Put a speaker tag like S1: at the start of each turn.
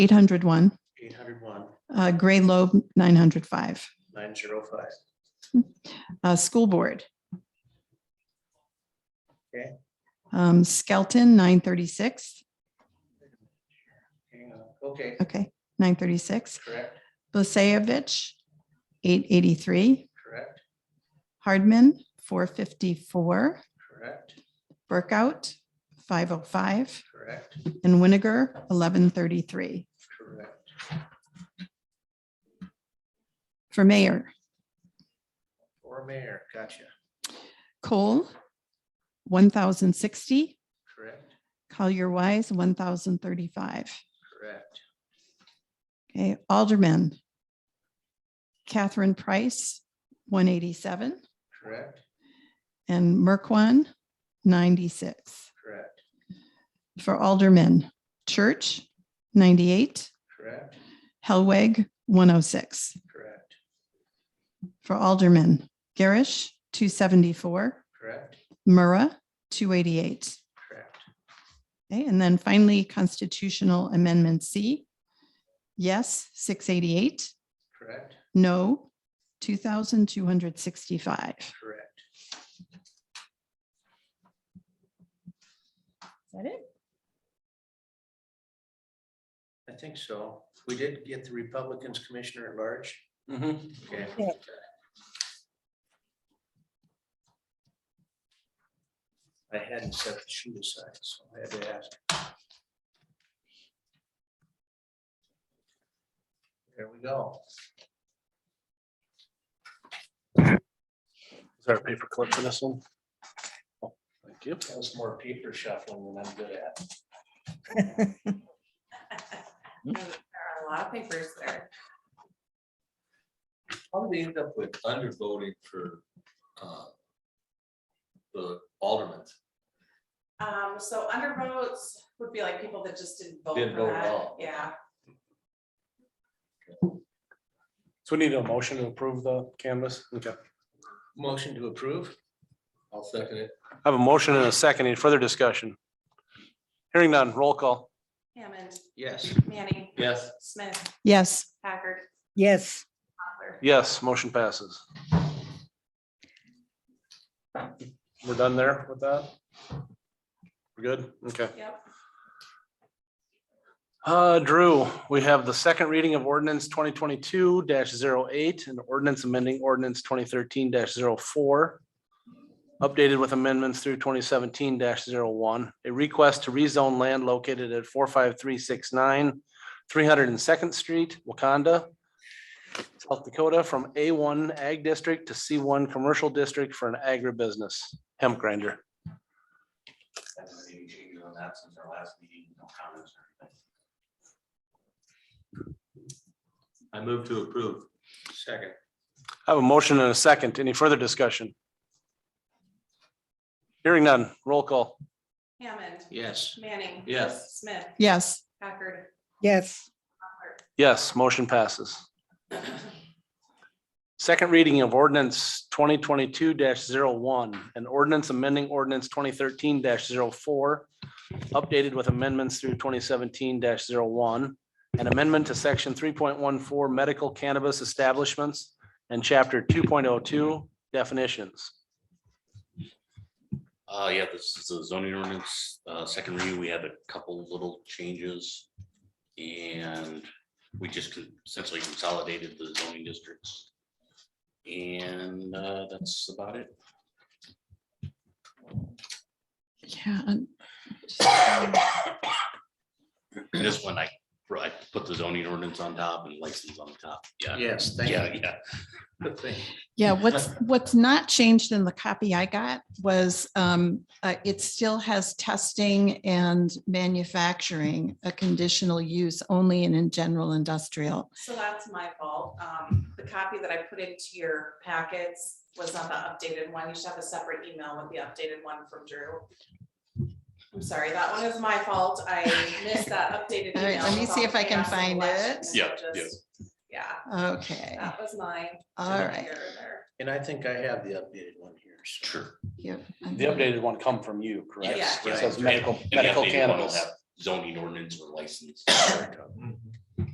S1: 801,
S2: eight hundred one,
S1: uh, Gray Loeb, 905.
S2: nine zero five.
S1: Uh, School Board.
S2: Okay.
S1: Um, Skelton, 936.
S2: Hang on, okay,
S1: Okay, 936.
S2: correct,
S1: Blasevich, 883.
S2: correct,
S1: Hardman, 454.
S2: correct,
S1: Burkout, 505.
S2: correct,
S1: And Winiger, 1133.
S2: correct.
S1: For Mayor,
S2: Or mayor, gotcha,
S1: Cole, 1,060.
S2: correct,
S1: Collier Wise, 1,035.
S2: correct,
S1: Okay, Alderman. Catherine Price, 187,
S2: correct,
S1: and Merkwan, 96.
S2: correct,
S1: For Alderman, Church, 98,
S2: correct,
S1: Helweg, 106.
S2: correct,
S1: For Alderman, Garish, 274,
S2: correct,
S1: Murrah, 288.
S2: correct,
S1: Okay, and then finally Constitutional Amendment C. Yes, 688,
S2: correct,
S1: no, 2,265.
S2: correct.
S1: Is that it?
S2: I think so. We did get the Republicans Commissioner at Large. Okay. I hadn't set the sheet aside, so I had to ask. There we go.
S3: Is there a paper clip for this one? Oh, Thank you.
S2: That was more paper shuffling than I'm good at.
S4: There are a lot of papers there.
S5: How did they end up with undervoting for uh, the aldermen?
S4: Um, so undervotes would be like people that just didn't vote
S5: Didn't
S4: for
S5: vote at
S4: that.
S5: all.
S4: Yeah,
S3: So we need a motion to approve the canvas. Okay.
S2: Motion to approve?
S5: I'll second it.
S3: I have a motion and a second. Any further discussion? Hearing none, roll call.
S4: Hammond,
S2: Yes.
S4: Manning,
S5: Yes.
S4: Smith,
S1: Yes.
S4: Packard,
S6: Yes,
S4: Mochler.
S3: Yes, motion passes. We're done there with that? We're good? Okay.
S4: Yep,
S3: Uh, Drew, we have the second reading of ordinance twenty twenty-two 8 and ordinance amending ordinance twenty thirteen 4 Updated with amendments through twenty seventeen one a request to rezone land located at four five three six nine three hundred and second street, Wakanda, South Dakota, from A one ag district to C one commercial district for an agribusiness hemp grinder.
S5: Any changes on that since our last meeting? No comments or anything? I move to approve.
S2: Second.
S3: I have a motion and a second. Any further discussion? Hearing none, roll call.
S4: Hammond,
S2: Yes.
S4: Manning.
S5: Yes.
S4: Smith,
S1: Yes.
S4: Packard.
S6: yes,
S3: Yes, motion passes. Second reading of ordinance twenty twenty-two one an ordinance amending ordinance twenty thirteen 4 updated with amendments through twenty seventeen one an amendment to section three point one four medical cannabis establishments and chapter two point oh two definitions.
S7: Uh, yeah, this is the zoning ordinance, uh, second review, we had a couple little changes. And we just con- essentially consolidated the zoning districts. And, uh, that's about it.
S1: Yeah. and-
S7: And This one, I, I put the zoning ordinance on top and license on the top, yeah,
S2: Yes, thank
S7: yeah,
S2: you.
S7: yeah.
S2: Thank you.
S1: Yeah, what's, what's not changed in the copy I got was um, uh, it still has testing and manufacturing, a conditional use only and in general industrial.
S4: So that's my fault. Um, the copy that I put into your packets was not the updated one. You should have a separate email with the updated one from Drew. I'm sorry, that one is my fault. I missed that updated
S1: All right,
S4: email.
S1: let me
S4: with all
S1: see
S4: the
S1: if I can
S4: chaos of
S1: find
S4: election.
S1: it.
S4: And
S7: Yeah,
S4: so just- Yeah,
S1: Okay,
S4: that was mine.
S1: all right.
S4: Error there.
S2: And I think I have the updated one here. so-
S7: Sure.
S1: Yep.
S3: The updated one come from you, correct?
S4: Yes,
S3: It says
S7: And-
S3: medical,
S7: and the
S3: medical
S7: updated one will
S3: cannabis.
S7: have Zoning ordinance or license.
S2: Mhm.